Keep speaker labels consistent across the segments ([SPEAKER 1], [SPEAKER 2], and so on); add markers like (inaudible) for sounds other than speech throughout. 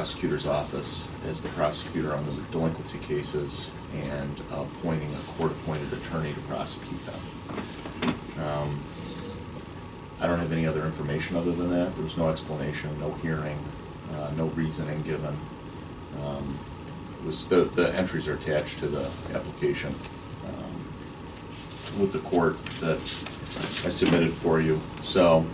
[SPEAKER 1] prosecutor's office as the prosecutor on those delinquency cases and appointing a court-appointed attorney to prosecute them. Um, I don't have any other information other than that. There was no explanation, no hearing, uh, no reasoning given. Um, it Was, the, the entries are attached to the application um, with the court that I submitted for you. So,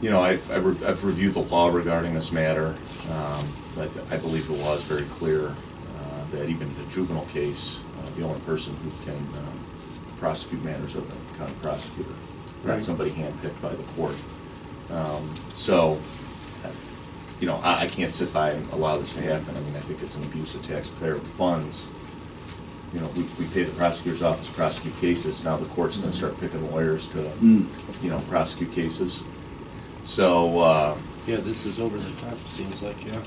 [SPEAKER 1] you know, I've, I've re- I've reviewed the law regarding this matter. Um, I th- I believe the law is very clear uh, that even in a juvenile case, uh, the only person who can um, prosecute matters are the county prosecutor, not
[SPEAKER 2] Right.
[SPEAKER 1] somebody handpicked by the court. Um, So, uh, you know, I, I can't sit by and allow this to happen. I mean, I think it's an abuse of taxpayer funds. You know, we, we pay the prosecutor's office to prosecute cases. Now the court's gonna start picking lawyers to,
[SPEAKER 2] Mm.
[SPEAKER 1] you know, prosecute cases. So, uh,
[SPEAKER 2] Yeah, this is over the top, seems like, yeah.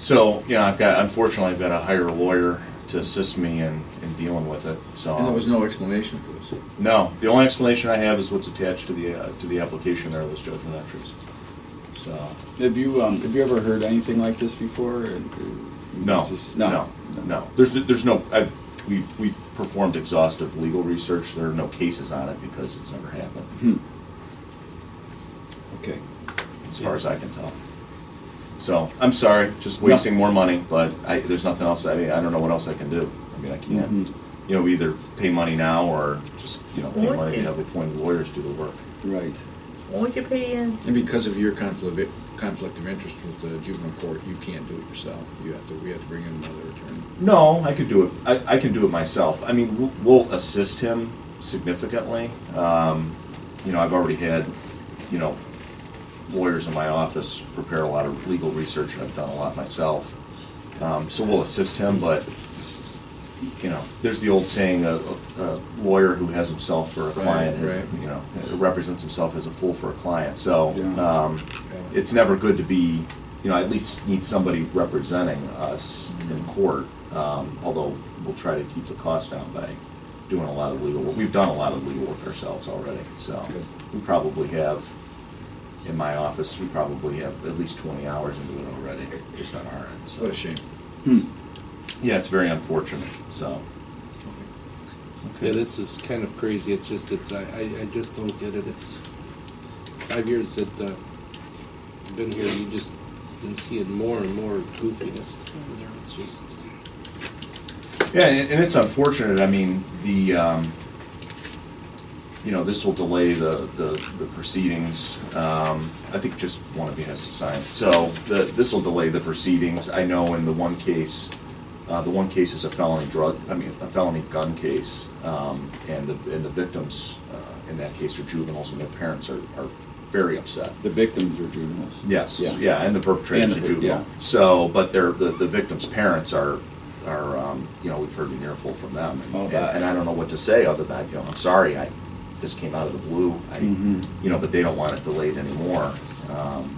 [SPEAKER 1] so, you know, I've got, unfortunately, I've got to hire a lawyer to assist me in, in dealing with it, so.
[SPEAKER 3] And there was no explanation for this.
[SPEAKER 1] No, the only explanation I have is what's attached to the, uh, to the application there, those judgment entries. So,
[SPEAKER 3] Have you, um, have you ever heard anything like this before? And, uh,
[SPEAKER 1] no,
[SPEAKER 3] this is-
[SPEAKER 1] no, no. There's, there's no, I've, we've, we've performed exhaustive legal research. There are no cases on it because it's never happened,
[SPEAKER 3] Hmm. Okay.
[SPEAKER 1] as far as I can tell. So, I'm sorry, just wasting more money, but I, there's nothing else, I, I don't know what else I can do. I mean, I can't.
[SPEAKER 3] Mhm.
[SPEAKER 1] you know, either pay money now or just, you know, pay money and have appointed lawyers do the work.
[SPEAKER 3] Right.
[SPEAKER 4] Won't you pay in?
[SPEAKER 3] And because of your conflict, of- conflict of interest with the juvenile court, you can't do it yourself. You have to, we have to bring in another attorney.
[SPEAKER 1] No, I could do it, I, I can do it myself. I mean, we'll- we'll assist him significantly. Um, you know, I've already had, you know, lawyers in my office prepare a lot of legal research and I've done a lot myself. Um, so we'll assist him, but, you know, there's the old saying, a, a lawyer who has himself for a
[SPEAKER 3] Right,
[SPEAKER 1] client,
[SPEAKER 3] right.
[SPEAKER 1] you know, represents himself as a fool for a client, so,
[SPEAKER 3] Yeah.
[SPEAKER 1] um, it's never good to be, you know, I at least need somebody representing us in
[SPEAKER 3] Mm-hmm.
[SPEAKER 1] court, um, although we'll try to keep the cost down by doing a lot of legal work. We've done a lot of legal work ourselves already, so
[SPEAKER 3] Good.
[SPEAKER 1] we probably have, in my office, we probably have at least twenty hours into it already, just on our end, so.
[SPEAKER 3] What a shame. Hmm.
[SPEAKER 1] Yeah, it's very unfortunate, so.
[SPEAKER 2] Yeah, this is kind of crazy, it's just, it's, I, I I just don't get it, it's five years that, uh, I've been here, you just been seeing more and more goofiness down there, it's just,
[SPEAKER 1] Yeah, and, and it's unfortunate, I mean, the, um, you know, this will delay the, the, the proceedings. Um, I think just one of you has to sign. So, the, this will delay the proceedings. I know in the one case, uh, the one case is a felony drug, I mean, a felony gun case. Um, and the, and the victims, uh, in that case are juveniles and their parents are, are very upset.
[SPEAKER 3] The victims are juveniles.
[SPEAKER 1] Yes,
[SPEAKER 3] Yeah.
[SPEAKER 1] yeah, and the perpetrator's a
[SPEAKER 3] And the per- yeah.
[SPEAKER 1] juvenile. So, but their, the, the victim's parents are, are, um, you know, we've heard an earful from them. and-
[SPEAKER 3] Oh,
[SPEAKER 1] and-
[SPEAKER 3] that.
[SPEAKER 1] And I don't know what to say other than, you know, I'm sorry, I, this came out of the blue. I,
[SPEAKER 3] Mhm.
[SPEAKER 1] you know, but they don't want it delayed anymore. Um,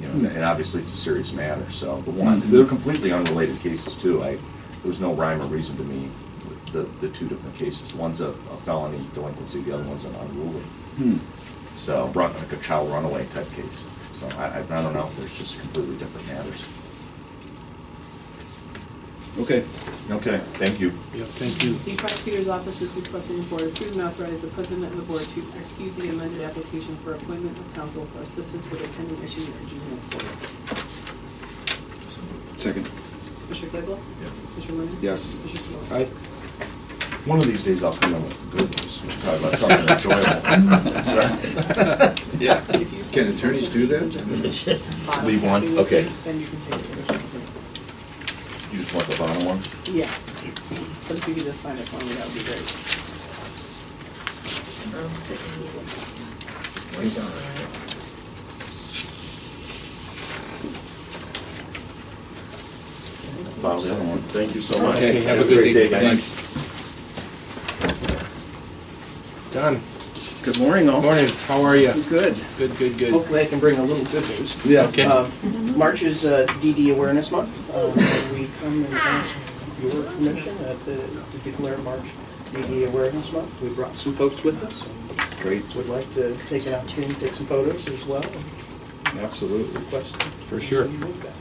[SPEAKER 1] You know, and- and obviously it's a serious matter, so, but one,
[SPEAKER 3] Mhm.
[SPEAKER 1] they're completely unrelated cases too. I, there was no rhyme or reason to me, with the, the two different cases. One's a a felony delinquency, the other one's an unruly.
[SPEAKER 3] Hmm.
[SPEAKER 1] So, run, like a child runaway type case. So I, I I don't know, there's just completely different matters.
[SPEAKER 3] Okay.
[SPEAKER 1] Okay, thank you.
[SPEAKER 2] yeah, thank you.
[SPEAKER 5] The prosecutor's office is requesting the board approve and authorize the president and the board to execute the amended application for appointment of counsel for assistance with a pending issue in juvenile court.
[SPEAKER 3] Second.
[SPEAKER 5] Commissioner Claypool?
[SPEAKER 3] Yeah.
[SPEAKER 5] Commissioner Lennon?
[SPEAKER 3] Yes.
[SPEAKER 5] Commissioner Spillier?
[SPEAKER 2] I,
[SPEAKER 1] One of these days I'll come in with the good news, We'll talk about (laughs) something enjoyable. That's all right.
[SPEAKER 3] Yeah.
[SPEAKER 5] If you
[SPEAKER 3] Can attorneys do that?
[SPEAKER 5] that?
[SPEAKER 1] Leave one? Okay.
[SPEAKER 5] Then you can take it.
[SPEAKER 1] You just want the bottom one?
[SPEAKER 5] Yeah. But if you could just sign it for me, that would be great.
[SPEAKER 1] Bottom of the other one. Thank you so much.
[SPEAKER 2] Okay, have a good
[SPEAKER 1] great
[SPEAKER 2] day.
[SPEAKER 3] Thanks.
[SPEAKER 2] Don,
[SPEAKER 6] Good morning, all.
[SPEAKER 2] morning, how are you?
[SPEAKER 6] Good.
[SPEAKER 2] Good, good, good.
[SPEAKER 6] Hopefully I can bring a little good news.
[SPEAKER 3] Yeah.
[SPEAKER 2] Okay.
[SPEAKER 6] Uh, March is uh, DD Awareness Month.
[SPEAKER 2] (laughs)
[SPEAKER 6] Uh, and We come and ask your permission at the- to declare March DD Awareness Month. We brought some folks with us.
[SPEAKER 3] Great.
[SPEAKER 6] Would like to take an opportunity to take some photos as well and
[SPEAKER 3] Absolutely.
[SPEAKER 6] request.
[SPEAKER 2] For sure.
[SPEAKER 6] you move that.